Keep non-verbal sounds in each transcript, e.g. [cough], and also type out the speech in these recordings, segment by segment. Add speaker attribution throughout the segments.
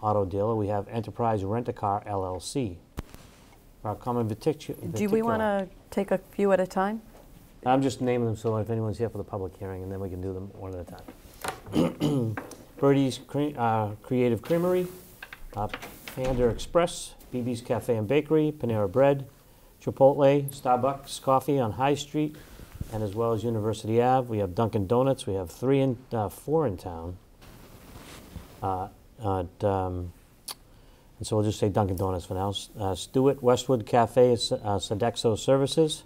Speaker 1: auto dealer, we have Enterprise Rent-A-Car LLC. Our common vitic-
Speaker 2: Do we want
Speaker 1: particular-
Speaker 2: to take a few at a time?
Speaker 1: I'm just naming them, so if anyone's here for the public hearing, and then we can do them one at a time. [clears throat] Birdie's Cre- uh, Creative Creamery, uh, Panda Express, BB's Cafe and Bakery, Panera Bread, Chipotle, Starbucks Coffee on High Street, and as well as University Ave. We have Dunkin' Donuts. We have three in, uh, four in town. Uh, at, um, and so we'll just say Dunkin' Donuts for now. S- Uh, Stewart Westwood Cafe, S- uh, Sodexo Services.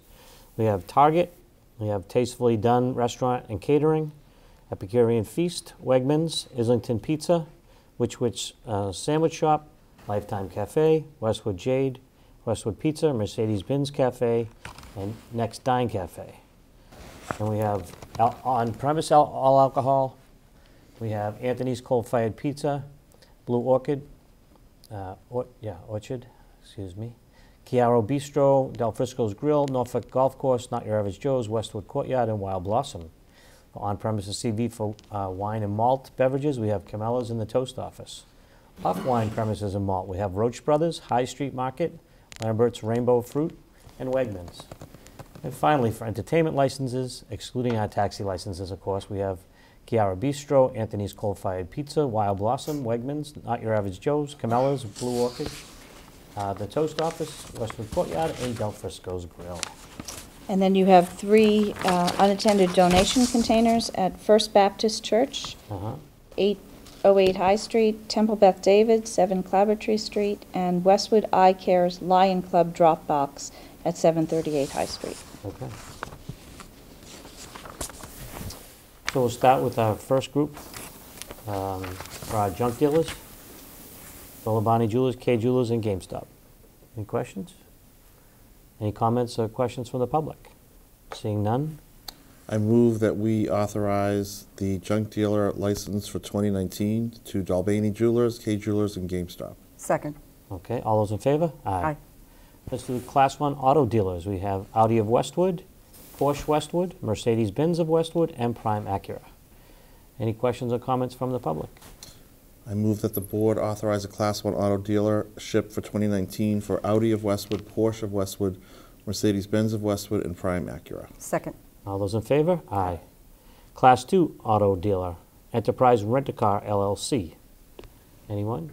Speaker 1: We have Target. We have Tastefully Done Restaurant and Catering, Epicurean Feast, Wegmans, Islington Pizza, Witch Witch uh, Sandwich Shop, Lifetime Cafe, Westwood Jade, Westwood Pizza, Mercedes Benz Cafe, and Next Dine Cafe. And we have al- on-premise al- all alcohol. We have Anthony's Coal Fired Pizza, Blue Orchid, uh, or, yeah, Orchard, excuse me. Chiaro Bistro, Del Frisco's Grill, Norfolk Golf Course, Not Your Average Joe's, Westwood Courtyard, and Wild Blossom. On premises CV for uh, wine and malt beverages, we have Camellas in the Toast Office. Off wine premises and malt, we have Roach Brothers, High Street Market, Lambert's Rainbow Fruit, and Wegmans. And finally, for entertainment licenses, excluding our taxi licenses, of course, we have Chiara Bistro, Anthony's Coal Fired Pizza, Wild Blossom, Wegmans, Not Your Average Joe's, Camellas, Blue Orchid, uh, The Toast Office, Westwood Courtyard, and Del Frisco's Grill.
Speaker 3: And then you have three uh, unattended donation containers at First Baptist Church,
Speaker 1: Uh-huh.
Speaker 3: 808 High Street, Temple Beth David, 7 Clabbertree Street, and Westwood Eye Care's Lion Club Drop Box at 738 High Street.
Speaker 1: Okay. So we'll start with our first group, um, for our junk dealers, Bolabani Jewelers, K Jewelers, and GameStop. Any questions? Any comments or questions from the public? Seeing none?
Speaker 4: I move that we authorize the junk dealer license for 2019 to Dalbany Jewelers, K Jewelers, and GameStop.
Speaker 2: Second.
Speaker 1: Okay, all those in favor?
Speaker 2: Aye.
Speaker 1: Let's do the Class 1 auto dealers. We have Audi of Westwood, Porsche Westwood, Mercedes-Benz of Westwood, and Prime Acura. Any questions or comments from the public?
Speaker 4: I move that the board authorize a Class 1 auto dealership for 2019 for Audi of Westwood, Porsche of Westwood, Mercedes-Benz of Westwood, and Prime Acura.
Speaker 2: Second.
Speaker 1: All those in favor? Aye. Class 2 auto dealer, Enterprise Rent-A-Car LLC. Anyone?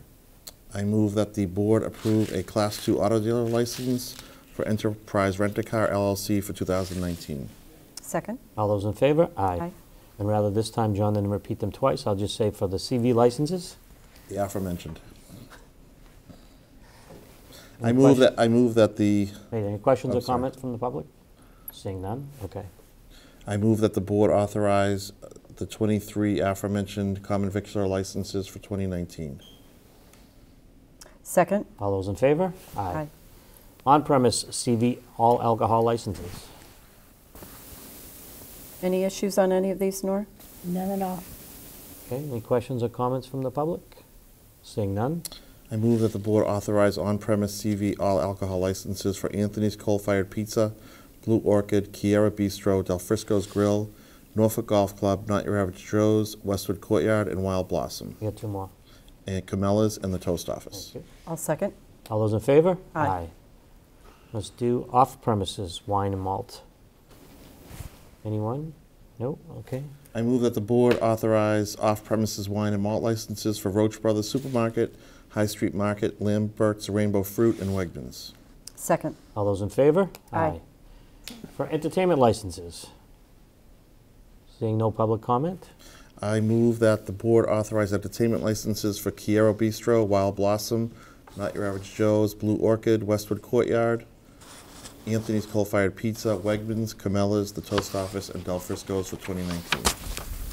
Speaker 4: I move that the board approve a Class 2 auto dealer license for Enterprise Rent-A-Car LLC for 2019.
Speaker 2: Second.
Speaker 1: All those in favor?
Speaker 2: Aye.
Speaker 1: And rather this time, John, than repeat them twice, I'll just say for the CV licenses.
Speaker 4: The aforementioned. I
Speaker 1: Any
Speaker 4: move
Speaker 1: question-
Speaker 4: that, I move that the,
Speaker 1: Wait, any questions
Speaker 4: I'm
Speaker 1: or
Speaker 4: sorry.
Speaker 1: comments from the public? Seeing none? Okay.
Speaker 4: I move that the board authorize uh, the 23 aforementioned common victular licenses for 2019.
Speaker 2: Second.
Speaker 1: All those in favor? On-premise CV all alcohol licenses.
Speaker 2: Any issues on any of these, Nora?
Speaker 3: None at all.
Speaker 1: Okay, any questions or comments from the public? Seeing none?
Speaker 4: I move that the board authorize on-premise CV all alcohol licenses for Anthony's Coal Fired Pizza, Blue Orchid, Kiara Bistro, Del Frisco's Grill, Norfolk Golf Club, Not Your Average Joe's, Westwood Courtyard, and Wild Blossom,
Speaker 1: We got two more.
Speaker 4: and Camellas and the Toast Office.
Speaker 1: Thank you.
Speaker 2: I'll second.
Speaker 1: All those in favor?
Speaker 2: Aye.
Speaker 1: Let's do off-premises wine and malt. Anyone? No? Okay.
Speaker 4: I move that the board authorize off-premises wine and malt licenses for Roach Brothers Supermarket, High Street Market, Lambert's Rainbow Fruit, and Wegmans.
Speaker 2: Second.
Speaker 1: All those in favor?
Speaker 2: Aye.
Speaker 1: For entertainment licenses? Seeing no public comment?
Speaker 4: I move that the board authorize entertainment licenses for Kiero Bistro, Wild Blossom, Not Your Average Joe's, Blue Orchid, Westwood Courtyard, Anthony's Coal Fired Pizza, Wegmans, Camellas, The Toast Office, and Del Frisco's for 2019.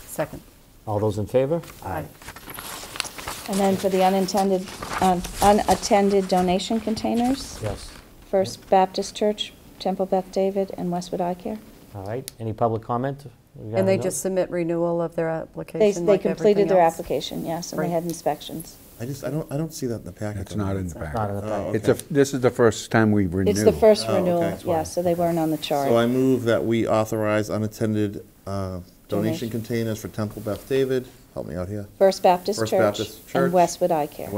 Speaker 2: Second.
Speaker 1: All those in favor?
Speaker 3: And then for the unintended, um, unattended donation containers,
Speaker 1: Yes.
Speaker 3: First Baptist Church, Temple Beth David, and Westwood Eye Care.
Speaker 1: All right. Any public comment? We got
Speaker 2: And they
Speaker 1: another?
Speaker 2: just submit renewal of their
Speaker 3: They,
Speaker 2: application
Speaker 3: they
Speaker 2: like
Speaker 3: completed
Speaker 2: everything
Speaker 3: their
Speaker 2: else?
Speaker 3: application, yes, and
Speaker 2: Right.
Speaker 3: they had inspections.
Speaker 4: I just, I don't, I don't see that in the packet.
Speaker 5: It's not in the
Speaker 1: Not in the
Speaker 5: packet.
Speaker 1: packet.
Speaker 5: It's, a- this is the first time we renewed.
Speaker 3: It's the first
Speaker 4: Oh, okay.
Speaker 3: renewal,
Speaker 4: That's
Speaker 1: why.
Speaker 3: yeah, so they weren't on the chart.
Speaker 4: So I move that we authorize unattended uh,
Speaker 3: Donation.
Speaker 4: donation containers for Temple Beth David, help me out here,
Speaker 3: First Baptist
Speaker 4: First
Speaker 3: Church
Speaker 4: Baptist Church
Speaker 3: and Westwood Eye Care.